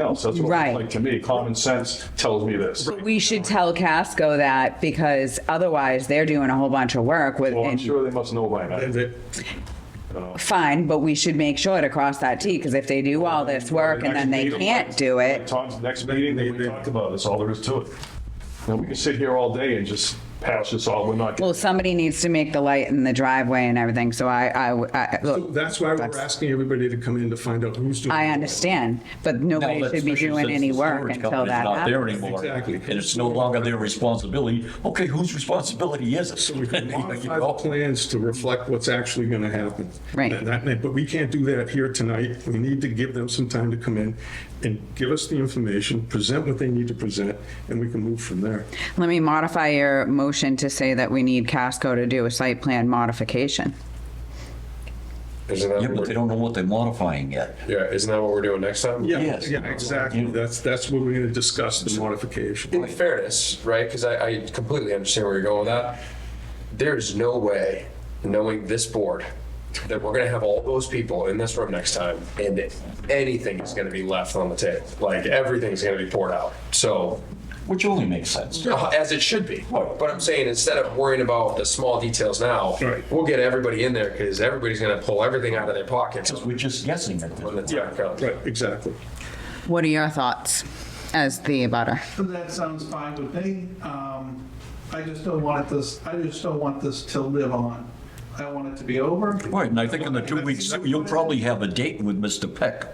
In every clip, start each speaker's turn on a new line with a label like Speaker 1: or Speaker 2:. Speaker 1: else. That's what it
Speaker 2: Right.
Speaker 1: looks like to me. Common sense tells me this.
Speaker 2: We should tell Casco that because otherwise they're doing a whole bunch of work with,
Speaker 1: Well, I'm
Speaker 2: and-
Speaker 1: sure they must know by now.
Speaker 2: fine, but we should make sure to cross that T because if they do all this work and then they
Speaker 1: Next meeting,
Speaker 2: can't do
Speaker 1: like
Speaker 2: it,
Speaker 1: Tom's next meeting, they we talked about, it. that's all there is to it. Now, we can sit here all day and just pass this all, we're not.
Speaker 2: well, somebody needs to make the light in the driveway and everything. So I, I, I, look,
Speaker 3: That's why we're asking everybody to come in to find out who's doing.
Speaker 2: I
Speaker 3: what.
Speaker 2: understand, but nobody should be doing any work until that
Speaker 4: Not there
Speaker 2: happens.
Speaker 4: anymore.
Speaker 3: Exactly.
Speaker 4: And it's no longer their responsibility. Okay, whose responsibility is it?
Speaker 3: So we can
Speaker 4: You
Speaker 3: modify the
Speaker 4: know?
Speaker 3: plans to reflect what's actually going to happen.
Speaker 2: Right.
Speaker 3: And that- But we can't do that here tonight. We need to give them some time to come in and give us the information, present what they need to present, and we can move from there.
Speaker 2: Let me modify your motion to say that we need Casco to do a site plan modification.
Speaker 5: Isn't that
Speaker 4: Yeah,
Speaker 5: what
Speaker 4: but they
Speaker 5: we're,
Speaker 4: don't know what they're modifying yet.
Speaker 5: yeah, isn't that what we're doing next time?
Speaker 3: Yeah,
Speaker 4: Yes.
Speaker 3: yeah, exactly. That's, that's what we're going to discuss, the modification.
Speaker 5: In fairness, right, because I, I completely understand where you're going with that. There is no way, knowing this board, that we're gonna have all those people in this room next time and that anything is gonna be left on the table. Like, everything's gonna be poured out. So,
Speaker 4: Which only makes sense.
Speaker 5: uh, as it should be. But I'm saying, instead of worrying about the small details now,
Speaker 3: Right.
Speaker 5: we'll get everybody in there because everybody's gonna pull everything out of their pockets
Speaker 4: We're just guessing at
Speaker 5: when the
Speaker 4: this.
Speaker 5: time comes.
Speaker 3: Right, exactly.
Speaker 2: What are your thoughts as the abutter?
Speaker 6: So That sounds fine with me. Um, I just don't want this, I just don't want this to live on. I want it to be over.
Speaker 4: Right, and I think in the two weeks, you'll probably have a date with Mr. Peck.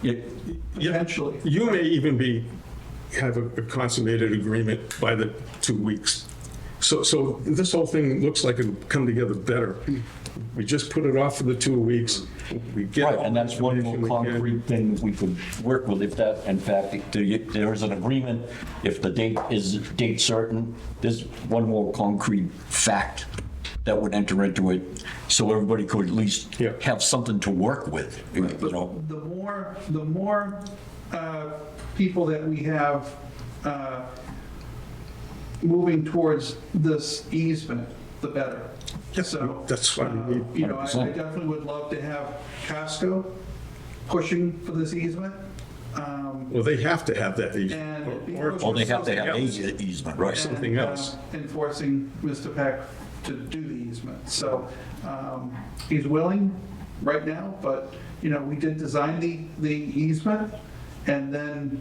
Speaker 4: Yeah,
Speaker 6: Eventually.
Speaker 3: You may even be, have a a consummated agreement by the two weeks. So, so this whole thing looks like it'll come together better. We just put it off for the two weeks. We get.
Speaker 4: Right, and that's one more
Speaker 3: all the information we can.
Speaker 4: concrete thing we could work with if that, in fact, if there- there is an agreement, if the date is date certain, there's one more concrete fact that would enter into it, so everybody could at least
Speaker 3: Yeah.
Speaker 4: have something to work with, you know?
Speaker 6: The more, the more uh, people that we have uh, moving towards this easement, the better. So,
Speaker 3: that's why we
Speaker 6: uh,
Speaker 3: need
Speaker 6: You know, I I
Speaker 4: 100%.
Speaker 6: definitely would love to have Casco pushing for this easement. Um,
Speaker 3: Well, they have to have that. easement, or-
Speaker 6: And-
Speaker 4: Well, they have to have a
Speaker 3: Something else.
Speaker 4: easement, right?
Speaker 3: Something
Speaker 6: and, uh,
Speaker 3: else.
Speaker 6: Enforcing Mr. Peck to do the easement. So um, he's willing right now, but, you know, we did design the, the easement, and then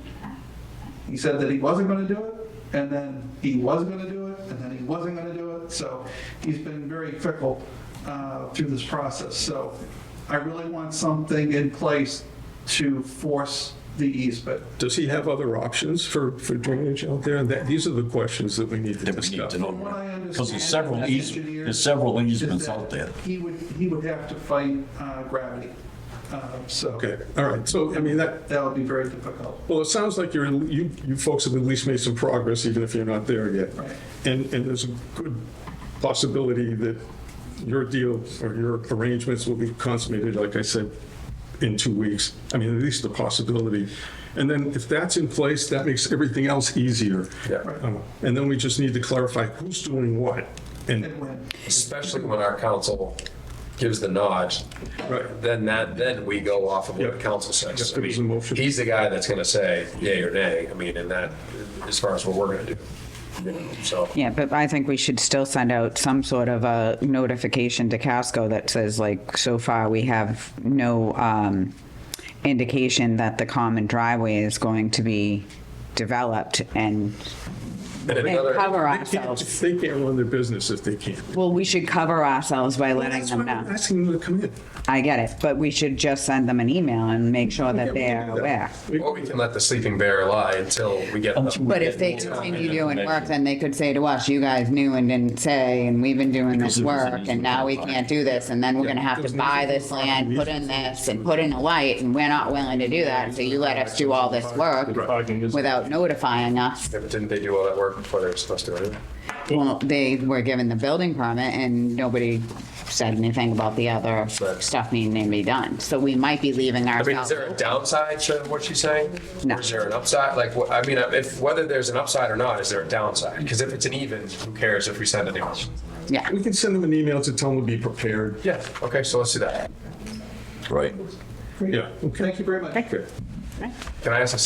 Speaker 6: he said that he wasn't going to do it, and then he was going to do it, and then he wasn't going to do it. So he's been very fickle uh, through this process. So I really want something in place to force the easement.
Speaker 3: Does he have other options for, for drainage out there? That, these are the questions that we need to
Speaker 4: That we need
Speaker 3: discuss.
Speaker 4: to know.
Speaker 6: From what I understand.
Speaker 4: Because there's several
Speaker 6: as
Speaker 4: easements,
Speaker 6: engineers,
Speaker 4: there's several
Speaker 6: is
Speaker 4: easements
Speaker 6: that
Speaker 4: out there.
Speaker 6: He would, he would have to fight uh, gravity, Uh, so.
Speaker 3: Okay, all right. So, I mean, that,
Speaker 6: That would be very difficult.
Speaker 3: Well, it sounds like you're, you, you folks have at least made some progress, even if you're not there yet.
Speaker 6: Right.
Speaker 3: And, and there's a good possibility that your deal or your arrangements will be consummated, like I said, in two weeks. I mean, at least the possibility. And then if that's in place, that makes everything else easier.
Speaker 5: Yeah.
Speaker 3: Uh, And then we just need to clarify who's doing what.
Speaker 6: And
Speaker 3: And,
Speaker 6: when-
Speaker 5: Especially when our council gives the nod
Speaker 3: right,
Speaker 5: then that, then we go off of what
Speaker 3: Yeah.
Speaker 5: the council says.
Speaker 3: Yeah, there was a
Speaker 5: I mean,
Speaker 3: motion.
Speaker 5: He's the guy that's gonna say yay or nay, I mean, and that, as far as what we're gonna do. you know, So,
Speaker 2: Yeah, but I think we should still send out some sort of a notification to Casco that says like, so far we have no um, indication that the common driveway is going to be developed and
Speaker 5: and
Speaker 2: and
Speaker 5: another,
Speaker 2: cover
Speaker 3: they can't,
Speaker 2: ourselves.
Speaker 3: they can't run their business if they can't.
Speaker 2: Well, we should cover ourselves by letting
Speaker 3: That's why
Speaker 2: them
Speaker 3: I'm
Speaker 2: know.
Speaker 3: asking them to come in.
Speaker 2: I get it, but we should just send them an email and make sure that
Speaker 3: we can
Speaker 2: they're
Speaker 3: do that.
Speaker 2: aware.
Speaker 3: We-
Speaker 5: or we can let the sleeping bear lie until we get.
Speaker 4: Until we
Speaker 5: the-
Speaker 2: But if they
Speaker 4: Yeah.
Speaker 2: continue doing work,
Speaker 4: Information.
Speaker 2: then they could say to us, you guys knew and didn't say, and we've been doing this
Speaker 4: Because it was an
Speaker 2: work, and now we
Speaker 4: easement.
Speaker 2: can't do this, and then we're gonna have to
Speaker 3: Because
Speaker 2: buy
Speaker 3: nothing
Speaker 2: this
Speaker 3: about
Speaker 2: land,
Speaker 3: the
Speaker 2: put in this, and put in a light, and we're not willing to do that, so you let us do all this work
Speaker 1: Parking is-
Speaker 2: without notifying us.
Speaker 5: Didn't they do all that work before they were supposed to? right?
Speaker 2: Well, they were given the building permit, and nobody said anything about the other
Speaker 5: Right.
Speaker 2: stuff needing to be done, so we might be leaving
Speaker 5: I mean, is
Speaker 2: ourselves.
Speaker 5: there a downside to what she's saying?
Speaker 2: No.
Speaker 5: Or is there an upside? Like, what- I mean, if, whether there's an upside or not, is there a downside? Because if it's an even, who cares if we send it anyone?
Speaker 2: Yeah,
Speaker 3: We can send them an email to tell them to be prepared.
Speaker 5: Yeah, okay, so let's do that.
Speaker 4: Right.
Speaker 3: Yeah, okay.
Speaker 6: Thank you very much.
Speaker 3: Okay.
Speaker 5: Can I ask a